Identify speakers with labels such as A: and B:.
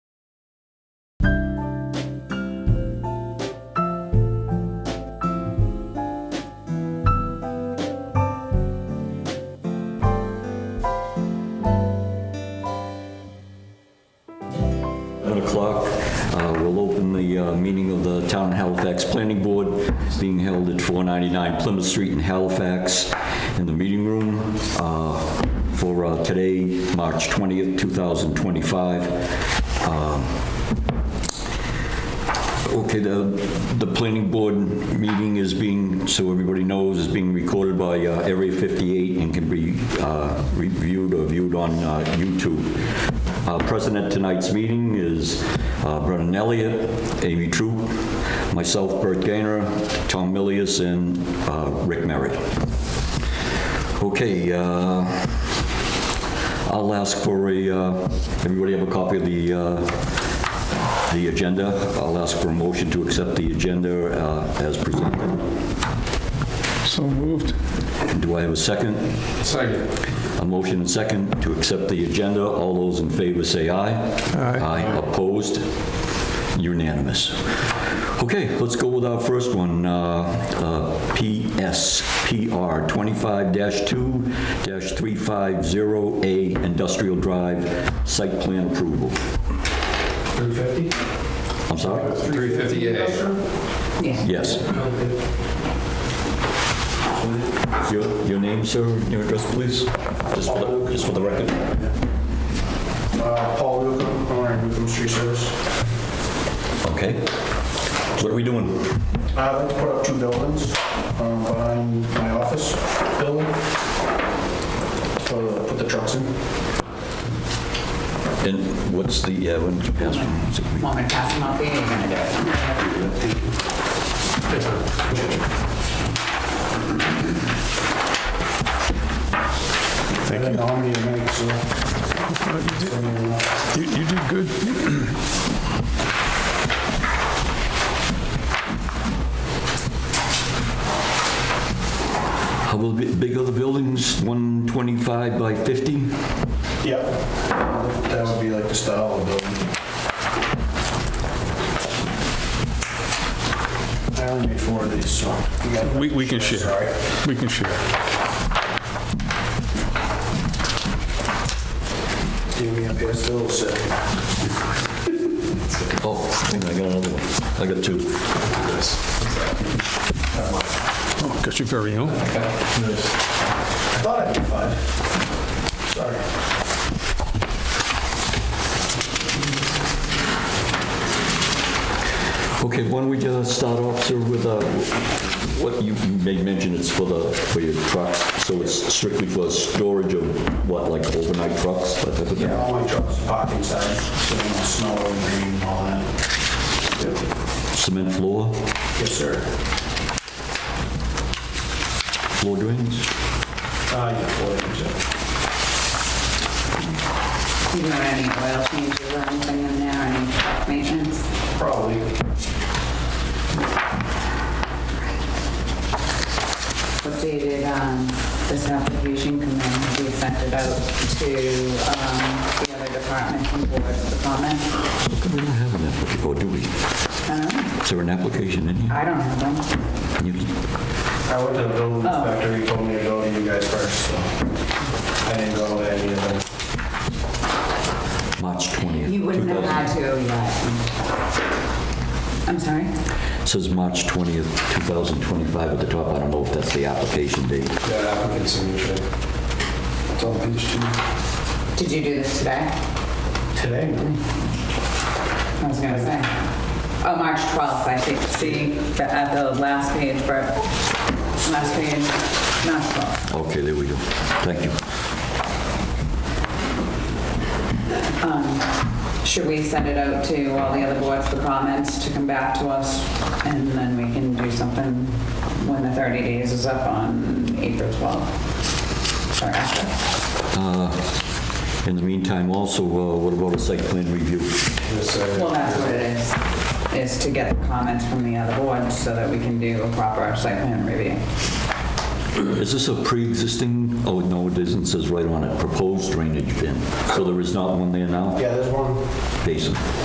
A: o'clock. Uh, We'll open the uh, meeting of the Town of Halifax Planning Board. It's being held at 499 Plymouth Street in Halifax in the meeting room uh, for uh, today, March 20th, 2025. Um, Okay, the, the planning board meeting is being, so everybody knows, is being recorded by uh, Area 58 and can be uh, reviewed or viewed on uh, YouTube. Uh, Present at tonight's meeting is uh, Brennan Elliott, Amy Troop, myself, Bert Gaynor, Tom Millius, and uh, Rick Merritt. Okay, uh, I'll ask for a, uh, everybody have a copy of the, uh, the agenda? I'll ask for a motion to accept the agenda uh, as presented.
B: So moved.
A: Do I have a second?
C: Second.
A: A motion and second to accept the agenda. All those in favor say aye.
B: Aye.
A: Aye, opposed? Unanimous. Okay, let's go with our first one, uh, uh, PSPR 25-2-350A Industrial Drive Site Plan Approval.
C: 350?
A: I'm sorry?
C: 350A.
A: Yes. Your, your name, sir, your address, please? Just for the, just for the record?
D: Uh, Paul Newcomb, owner of Newcomb Street Service.
A: Okay. What are we doing?
D: I'd like to put up two buildings um, behind my office building. So, Put the trucks in.
A: And what's the, uh, when did you pass from?
E: Want me to pass them out there? You're gonna do it.
D: Thank you. I don't know how many to make, so. so, uh,
B: You you did good.
A: How will it big are the buildings? 125 by 50?
D: Yeah, that would be like the style of building. I only made four of these, so. you got-
B: We we can share.
D: Sorry.
B: We can share.
D: Give me a pass, little set.
A: Oh, hang on, I got another one. I got two.
B: Oh, Got your very own.
D: I thought I did five. Sorry.
A: Okay, why don't we just start off, sir, with, uh, what you you made mention, it's for the, for your trucks, so it's strictly for storage of what, like overnight trucks, that type of thing?
D: Yeah, all my trucks are parked inside, so no snow and rain and all that.
A: Cement floor,
D: Yes, sir.
A: floor drains?
D: Ah, yeah, four inches.
E: You don't have any oil changes or anything in there, any maintenance?
D: Probably.
E: Updated, um, this application can then be sent it out to, um, the other departments and boards for comment.
A: We don't have an application, or do we?
E: I don't know.
A: Is there an application in here?
E: I don't have them.
A: You-
D: I went to the building
E: Oh.
D: inspector, he told me to go to you guys first, so I didn't go to any of them.
A: March 20th.
E: You wouldn't have
A: 2000
E: had to, yet. I'm sorry?
A: Says March 20th, 2025 at the top. I don't know if that's the application date.
D: That applicant signature. It's on page two.
E: Did you do this today?
D: Today, no?
E: I was gonna say. Oh, March 12th, I think, see, the- at the last page, Bert. Last page, March 12th.
A: Okay, there we go. Thank you.
E: Should we send it out to all the other boards for comments to come back to us? And then we can do something when the 30 days is up on April 12th? Or after?
A: In the meantime, also, uh, what about a site plan review?
D: Yes, sir.
E: Well, that's what it is, is to get the comments from the other boards so that we can do a proper site plan review.
A: Is this a pre-existing? Oh, no, it isn't. It says right on it, proposed drainage bin. So there is not one there now?
D: Yeah, there's one.
A: Basin.